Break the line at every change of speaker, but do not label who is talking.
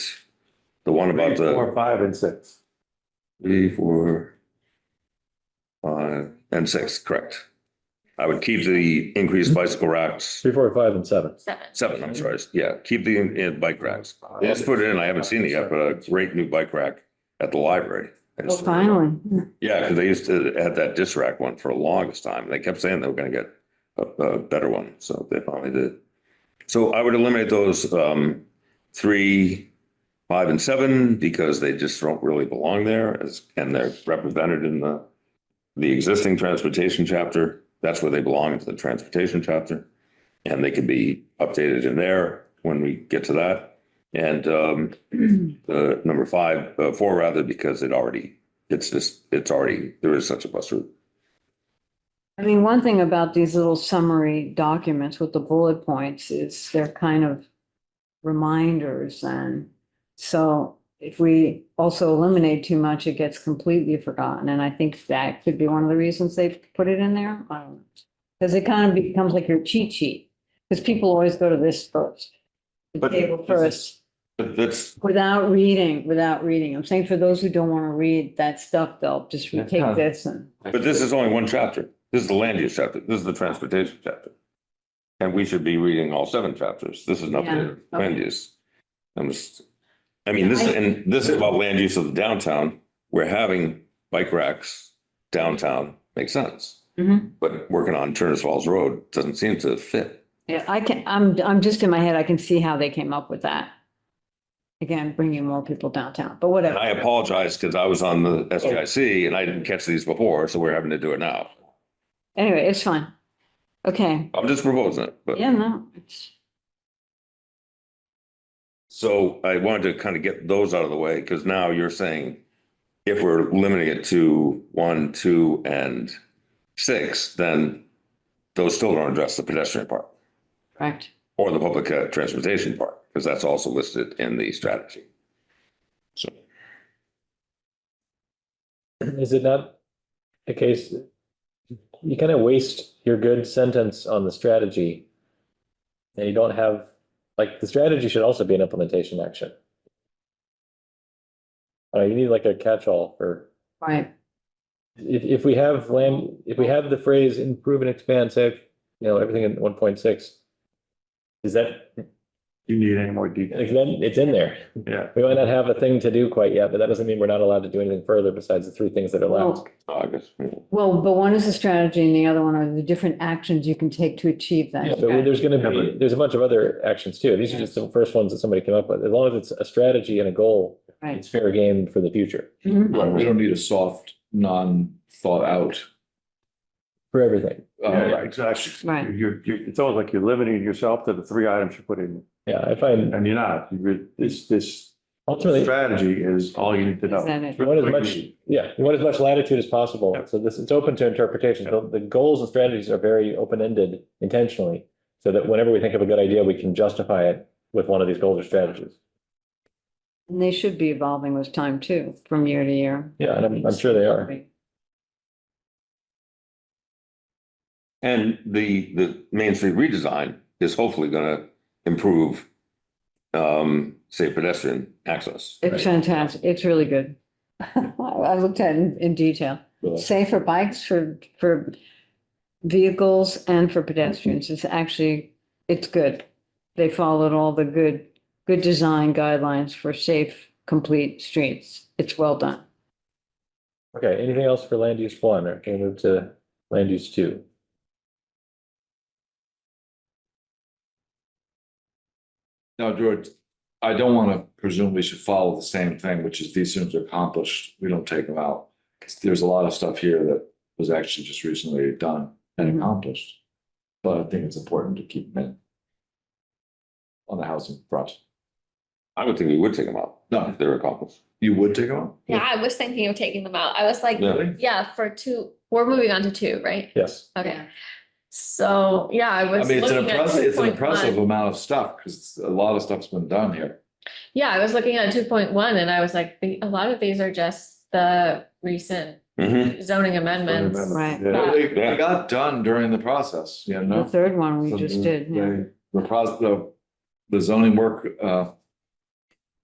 The one about
Three,
the
Four, five and six.
three, four, five, and six, correct. I would keep the increased
Mm-hmm.
bicycle racks,
Three, four, five, and seven.
seven.
seven, I'm sorry, yeah, keep the in- in bike racks. They just put it in, I haven't seen it yet, but a great new bike rack at the library. I just-
Finally.
Yeah, because they used to have that disc rack one for the longest time. They kept saying they were gonna get a, a better one, so they finally did. So I would eliminate those, um, three, five and seven because they just don't really belong there as, and they're represented in the, the existing transportation chapter. That's where they belong, into the transportation chapter. And they could be updated in there when we get to that. And, um, the number five, uh, four rather, because it already it's just, it's already, there is such a bus route.
I mean, one thing about these little summary documents with the bullet points is they're kind of reminders and so if we also eliminate too much, it gets completely forgotten. And I think that could be one of the reasons they put it in there. I don't know. Because it kind of becomes like your cheat sheet, because people always go to this first. The
But
table
this is-
first.
But that's,
Without reading, without reading. I'm saying for those who don't want to read that stuff, they'll just
That's
take
not-
this and.
but this is only one chapter. This is the land use chapter. This is the transportation chapter. And we should be reading all seven chapters. This is not the
Yeah,
land
okay.
use. I'm just, I mean, this, is and this is about land use of the downtown. We're having bike racks downtown, makes sense.
Mhm.
But working on Turner's Falls Road doesn't seem to fit.
Yeah, I can, I'm, I'm just in my head, I can see how they came up with that. Again, bringing more people downtown, but
And I
whatever.
apologize because I was on the SGIC and I didn't catch these before, so we're having to do it now.
Anyway, it's fine. Okay,
I'm just proposing it, but.
yeah, no, it's,
So I wanted to kind of get those out of the way, because now you're saying if we're limiting it to one, two, and six, then those still don't address the pedestrian part
correct.
or the public uh, transportation part, because that's also listed in the strategy. So,
Is it not a case, you kind of waste your good sentence on the strategy. And you don't have, like, the strategy should also be an implementation action. Uh, you need like a catch-all for,
Right,
if, if we have land, if we have the phrase improve and expand, say, you know, everything in one point six. Is that,
Do you need any more detail?
like, then it's in there.
Yeah.
We might not have a thing to do quite yet, but that doesn't mean we're not allowed to do anything further besides the three things that are left.
well,
I guess, yeah.
well, but one is a strategy and the other one are the different actions you can take to achieve that.
Yeah, but we- there's
Yeah,
gonna be,
but-
there's a bunch of other actions too. These are just the first ones that somebody came up with. As long as it's a strategy and a goal,
Right.
it's fair game for the future,
Mhm.
Right, we don't need a soft, non-thought out.
for everything.
uh,
Yeah, exactly.
Right.
You're, you're, it's almost like you're limiting yourself to the three items you put in,
Yeah, I find
and you're not. You re- This, this
ultimately,
strategy is all you need to
Is that
know.
it?
you want as much, yeah, you want as much latitude as possible.
Yeah.
So this, it's open to interpretation. The, the goals and strategies are very open-ended intentionally. So that whenever we think of a good idea, we can justify it with one of these goals or strategies.
And they should be evolving with time too, from year to year.
Yeah, and I'm, I'm sure they are.
And the, the Main Street redesign is hopefully gonna improve, um, say pedestrian access.
It's fantastic, it's really good. I I looked at it in, in detail. Safe for bikes, for, for vehicles and for pedestrians. It's actually, it's good. They followed all the good, good design guidelines for safe, complete streets. It's well done.
Okay, anything else for land use one, or can we move to land use two?
Now, George, I don't want to presume we should follow the same thing, which is these things are accomplished, we don't take them out. 'Cause There's a lot of stuff here that was actually just recently done
Mhm.
and accomplished. But I think it's important to keep them in. On the housing front.
I would think we would take them out
No,
if they're accomplished.
you would take them out?
Yeah, I was thinking of taking them out. I was like,
Really?
yeah, for two, we're moving on to two, right?
Yes.
Okay, so, yeah, I
I
was
mean, it's an
looking at
impressive,
two
it's an
point
impressive
one.
amount of stuff because a lot of stuff's been done here.
Yeah, I was looking at two point one and I was like, the- a lot of these are just the recent
Hmm.
Mhm.
zoning amendments.
Right.
Yeah.
They,
Yeah.
they got done during the process, you
The
know?
third one we
So
just
the-
did, yeah.
The process, the, the zoning work, uh,